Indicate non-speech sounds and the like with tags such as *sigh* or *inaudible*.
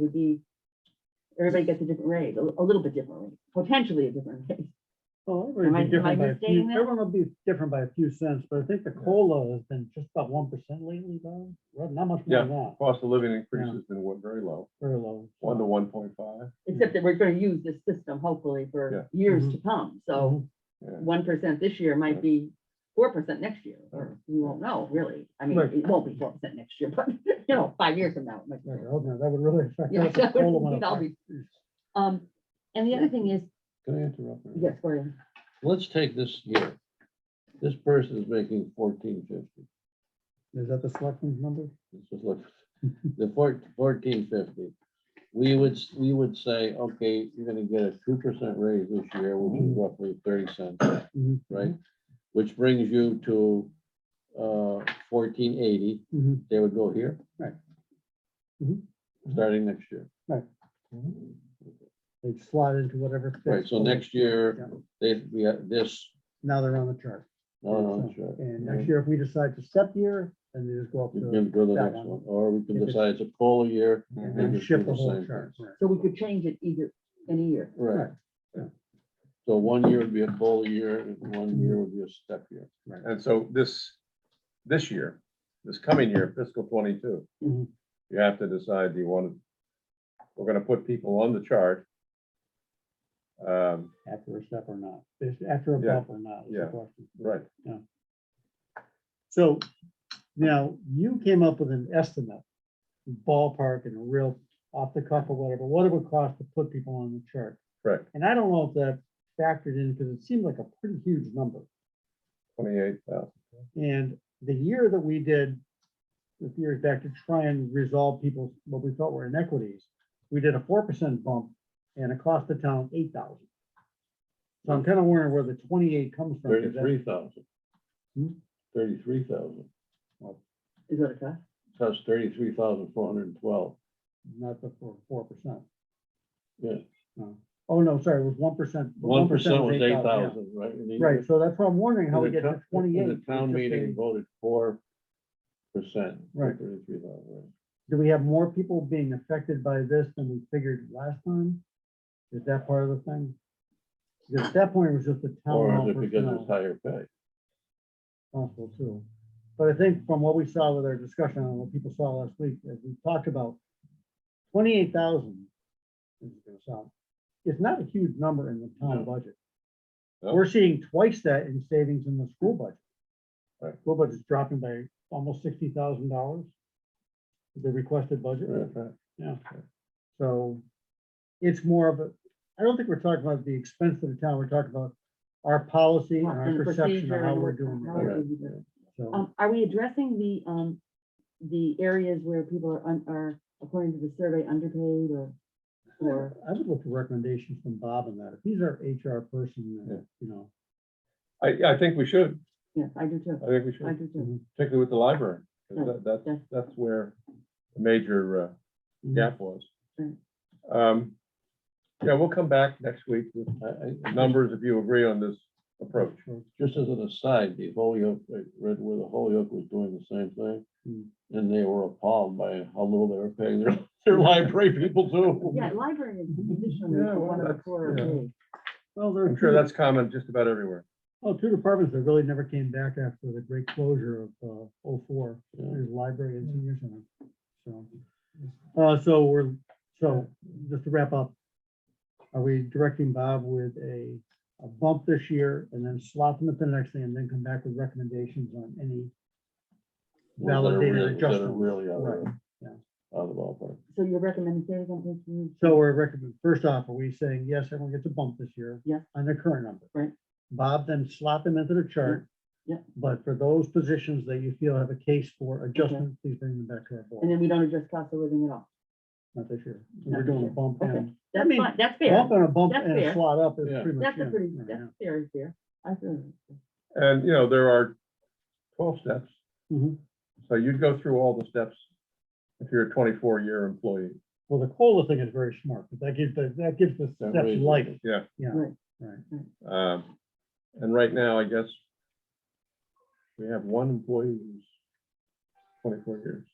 would be, everybody gets a different rate, a a little bit different rate, potentially a different rate. *laughs* Well, Am I- everyone am be different I by a few- misstating that? everyone will be different by a few cents, but I think the Yeah. COLA has been just about one percent lately, though. Well, Not much more Yeah. than that, Cost of living increase Yeah. has been one- very low, very low. one to one point five. Except that we're gonna use this system hopefully for years Mm-hmm. to come, so So, Yeah, one percent this year might Yeah. be four percent next year, or we won't know, really. I mean, Right. it won't be four percent next year, *laughs* but, you know, five years from now. it might be. yeah, oh, no, that would really affect. *laughs* Yeah, us if that would- COLA went we'd up all by- be- Um, and the other thing is, Can I interrupt? there? yes, Gordon, Let's take this year. This person is making fourteen fifty. Is that the selectman's number? This is look, *laughs* the four- 1450. We would, s- we would say, okay, you're gonna get a two percent raise this year, which Mm-hmm. is roughly thirty cents, Mhm. right? Which brings you to uh fourteen eighty. Mhm. They would go here. Right. Mhm. Starting next year. Right. They'd slot into whatever. fits Right, so for- next year, Yeah. they, we have this, Now they're on the chart. no, no, So, that's right. And next year, if we decide to step year, then they just go up Mm-hmm. We to. can go to the that next one. one, or we If can it's- decide it's a full year. and they Mm-hmm. then just do Shift the the whole same chart. thing. right. so we could change it either, any year. Right. Right, yeah. So one year would be a full year, and one year would be a step year. And so this, this year, this coming year, fiscal twenty-two, Mhm. you have to decide, do you want to, we're gonna put people on the chart. Um, After a step or not, If- after a Yeah, bump or not. is the yeah. question. right, So now you came up with an estimate, ballpark and a real off the cuff or whatever, what it would cost to put people on the chart. Correct. And I don't know if that factored in because it seemed like a pretty huge number. twenty-eight thousand. And the year that we did, a few years back to try and resolve people's, what we thought were inequities, we did a four percent bump and it cost the town eight thousand. So I'm kind of wondering where the twenty-eight comes from. 'cause that- Thirty-three thousand. Hmm? Thirty-three thousand. Is what it costs. That's thirty-three thousand four hundred and twelve. Not the four, four percent. Yeah. No. Oh, no, sorry, it was one percent. One percent was eight thousand, right? And the- Right, so that's why I'm wondering how we and the get to town- and twenty-eight. The town It's just meeting a- voted four percent. Right. Thirty-three thousand. Do we have more people being affected by this than we figured last time? Is that part of the thing? Because at that point, it was just the town. Or is hall it because it's personnel higher pay? Possible too. But I think from what we saw with our discussion and what people saw last week, as we talked about, twenty-eight thousand is gonna sound, it's not a huge number in the town No. budget. No. We're seeing twice that in savings in the school budget. Right. School budget's dropping by almost sixty thousand dollars. The requested budget. So it's more of a, I don't think we're talking about the expense of the town. We're talking about our policy and And our the perception of procedure how and we're what- doing. how it. we're Right. doing it. So, Um, are we addressing the, um, the areas where people are, un- are, according to the survey, underpaid or, or, I would look for recommendations from Bob on that. If he's our HR person, then, you know, I, I think we should, yes, I do too, I think we should, I do too. particularly with the library, Hmm. 'cause Yeah, that, that, yeah. that's where the major, uh, gap was. Mm. Um, yeah, we'll come back next week with uh, I- I- numbers if you agree on this approach. just as an aside, the Holyoke, I read where the Holyoke was doing the same Hmm. thing. And they were appalled by how little they were paying their, *laughs* their library people too. Yeah, library is traditionally Yeah, the well, one of the that's- four. yeah. okay. well, there are I'm sure two- that's common just about everywhere. Oh, two departments that really never came back after the great closure of uh, 04, Yeah. there's library and senior center. So, uh, so we're, so just to wrap up, are we directing Bob with a, a bump this year and then slot them at the next thing and then come back with recommendations on any? Ones that are Validated really- that are adjustments. Really out of, Right, out yeah. of the ballpark. So you're recommending, say again, please, you- So we're recommending, first off, are we saying, yes, everyone gets a bump this year? Yeah. On their current number? Right. Bob then slot them into the chart. Yeah. But for those positions that you feel have a case for adjustment, please bring them back to our and board, then we don't address cost of living at all. not this year. Not We're this doing a year. bump Okay. and, I That's mean, fine, that's fair. bump and a bump That's and a fair. slot up is Yeah. pretty much. That's a it pretty, right that's now. fair, fair. I feel. you. And, you know, there are twelve steps. Mhm. So you'd go through all the steps if you're a twenty-four year employee. Well, the COLA thing is very smart, but that gives, the- that gives the That steps raises life, it. Um, and right now, I guess we have one employee who's twenty-four years.